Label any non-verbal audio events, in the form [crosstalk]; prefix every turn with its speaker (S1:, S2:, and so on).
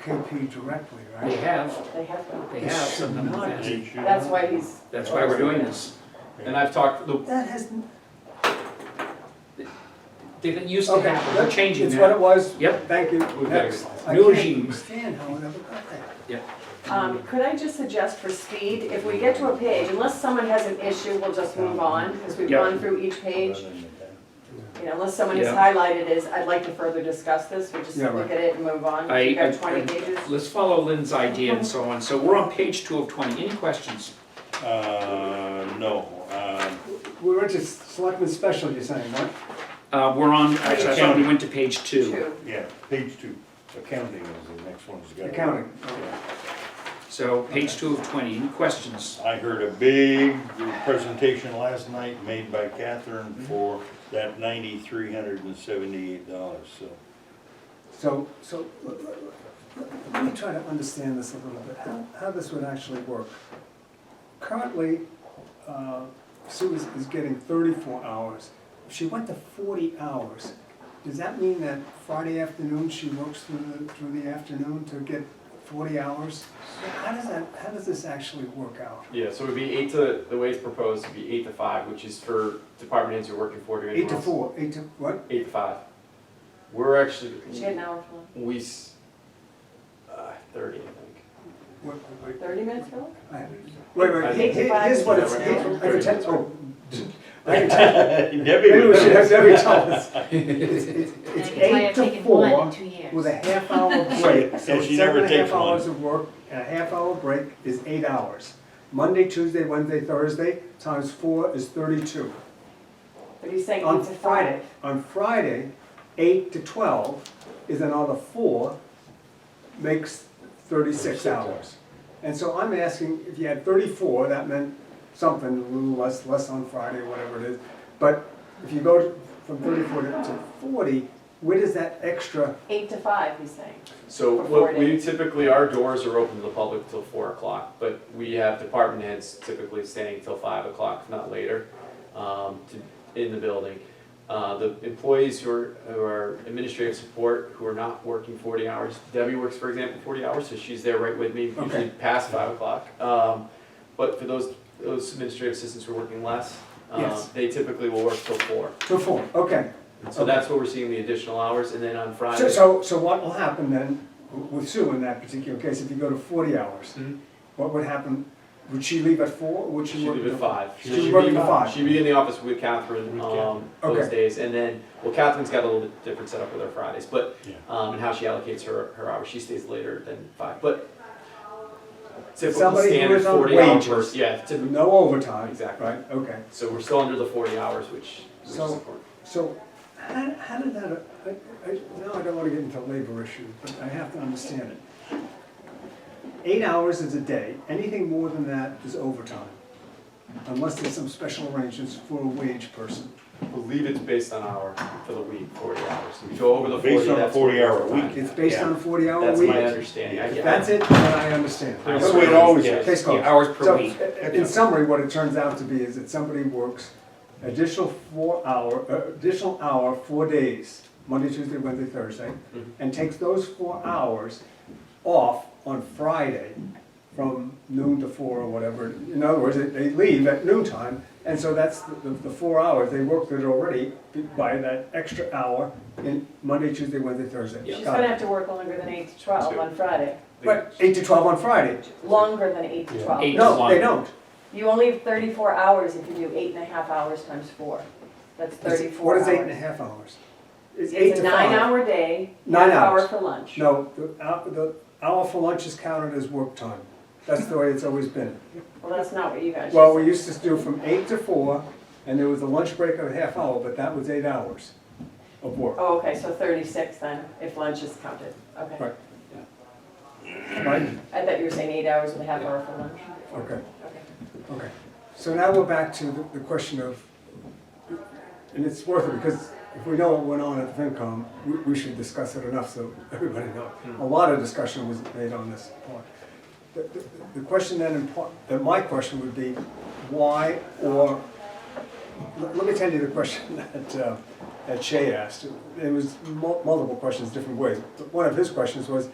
S1: KP directly,
S2: They
S1: right?
S2: have,
S3: They have them.
S2: they have some of them. That's-
S3: That's why he's,
S2: That's why we're doing this. And I've talked, the-
S1: That has,
S2: they didn't used to
S4: Okay,
S2: have, we're changing
S4: It's what it
S2: that.
S4: was.
S2: Yep.
S4: Thank you.
S2: We've got
S4: Next.
S1: I
S2: a New
S1: can't
S2: regime.
S1: understand how it ever got there.
S3: um, could I just suggest for speed, if we get to a page, unless someone has an issue, we'll just move on, because we've
S2: Yeah.
S3: gone through each page. You know, unless someone has
S2: Yeah.
S3: highlighted is, I'd like to further discuss this, we just
S1: Yeah,
S3: look
S1: right.
S3: at it and move on.
S2: I-
S3: You've
S2: I-
S3: got twenty pages.
S2: Let's follow Lynn's idea and so on. So we're on page two of twenty. Any questions?
S5: Uh, no, um,
S4: We were just selectmen special, you're saying, right?
S2: Uh, we're on, actually, I thought we
S5: Accounting.
S2: went to page two.
S3: Two.
S5: yeah, page two, accounting is the next one's got.
S4: Accounting.
S2: So page two of twenty. Any questions?
S5: I heard a big presentation last night made by Catherine for that ninety-three hundred and seventy-eight dollars, so. [laughs]
S4: So,
S1: So, let- let- let- let me try to understand this a little bit, how, how this would actually work. Currently, uh, Sue is, is getting thirty-four hours. If she went to forty hours, does that mean that Friday afternoon, she works through the, through the afternoon to get forty hours? How does that, how does this actually work out?
S6: Yeah, so it would be eight to, the way it's proposed would be eight to five, which is for department heads who are working four to
S1: Eight
S6: anyone
S1: to
S6: else.
S1: four, eight to, what?
S6: Eight to five. We're actually,
S3: She had an hour for
S6: we, s- uh, thirty, I think.
S1: What- wait,
S3: thirty minutes, Phil?
S1: I- Wait, wait,
S6: Eight
S1: here-
S3: to five.
S1: here's what it's,
S6: Is
S1: I
S6: that right?
S1: can tell, oh, I can tell,
S5: Debbie
S1: maybe we
S5: was,
S1: should have Debbie tell us. It's [laughs] it's- it's
S7: And I
S1: eight
S7: have
S1: to
S7: taken one in
S1: four
S7: two years.
S1: with a half hour [laughs] break. So
S5: Yeah,
S1: it's seven
S5: she never
S1: and a half
S5: takes one.
S1: hours of work and a half hour break is eight hours. Monday, Tuesday, Wednesday, Thursday, times four is thirty-two.
S3: But he's saying
S1: On
S3: eight to
S1: Friday,
S3: five.
S1: on Friday, eight to twelve is another four, makes thirty-six hours. And so I'm asking, if you had thirty-four, that meant something, a little less, less on Friday, whatever it is. But if you go to- from thirty-four to- to forty, where does that extra,
S3: Eight to five, he's saying.
S6: So
S3: For
S6: what we
S3: forty.
S6: typically, our doors are open to the public till four o'clock, but we have department heads typically staying till five o'clock, if not later, um, to, in the building. Uh, the employees who are, who are administrative support, who are not working forty hours, Debbie works, for example, forty hours, so she's there right with me, usually
S1: Okay.
S6: past five o'clock. Um, but for those, those administrative assistants who are working less, um,
S1: Yes.
S6: they typically will work till four.
S1: to four, okay.
S6: So that's where we're seeing the additional hours, and then on
S1: So,
S6: Friday,
S1: so, so what will happen then with Sue in that particular case, if you go to forty hours?
S6: Mhm.
S1: What would happen, would she leave at four, or would she
S6: She'd
S1: work?
S6: leave at
S1: till-
S6: five.
S1: She
S6: So she'd
S1: worked
S6: be-
S1: at five.
S6: She'd be in the office with Catherine,
S5: With
S6: um,
S1: Catherine.
S6: those
S1: Okay.
S6: days, and then, well, Catherine's got a little bit different setup with her Fridays, but,
S5: Yeah.
S6: um, and how she allocates her, her hours, she stays later than five, but typical
S1: Somebody who
S6: standard
S1: is on
S6: forty hours.
S1: wages.
S6: Yeah, typical,
S1: No overtime?
S6: Exactly.
S1: Right, okay.
S6: so we're still under the forty hours, which, which is
S1: So-
S6: important.
S1: So, how, how did that, I, I, no, I don't wanna get into a labor issue, but I have to understand it. Eight hours is a day, anything more than that is overtime, unless there's some special arrangements for a wage person.
S6: I believe it's based on hour for the week, forty hours, if you go over the forty,
S5: Based on a
S6: that's.
S5: 40 hour
S6: overtime.
S5: week.
S1: It's based on a forty-hour
S6: That's my
S1: week.
S6: understanding, I
S1: If
S6: get.
S1: that's it, then I understand.
S5: That's the way it always
S2: Yeah,
S5: is.
S1: Case closed.
S2: yeah, Hours per
S1: So,
S2: week.
S1: i- in summary, what it turns out to be is that somebody works additional four hour, uh, additional hour, four days, Monday, Tuesday, Wednesday, Thursday,
S2: Mm-hmm.
S6: Mhm.
S1: and takes those four hours off on Friday from noon to four or whatever. In other words, they- they leave at noontime, and so that's the, the- the four hours, they worked it already by that extra hour in Monday, Tuesday, Wednesday, Thursday.
S6: Yeah.
S3: She's
S1: Got
S3: gonna
S1: it.
S3: have to work longer than eight to twelve
S6: Two.
S3: on Friday,
S1: But eight to twelve on Friday.
S3: longer than eight to
S5: Yeah.
S3: twelve.
S2: Eight.
S1: No, they don't.
S3: You only have thirty-four hours if you do eight and a half hours times four. That's
S1: It's-
S3: thirty-four hours.
S1: What is eight and a half hours? It's eight
S3: It's a
S1: to five.
S3: nine-hour day,
S1: Nine
S3: half hour
S1: hours.
S3: for lunch.
S1: No, the hour, the hour for lunch is counted as work time. That's the way it's always been.
S3: Well, that's not what you guys.
S1: Well,
S3: just-
S1: we used to do from eight to four, and there was a lunch break of a half hour, but that was eight hours of work,
S3: Oh, okay, so thirty-six then, if lunch is counted, okay.
S1: Right. right?
S3: I thought you were saying eight hours with a half hour for lunch.
S1: Okay,
S3: Okay.
S1: okay. So now we're back to the- the question of, and it's worth it, because if we know what went on at the FinCom, we, we should discuss it enough so everybody knows. A lot of discussion was made on this point. The, the- the question then, in part- that my question would be, why or, let, let me tell you the question [laughs] that, uh, that Shay asked. It was mul- multiple questions, different ways, but one of his questions was,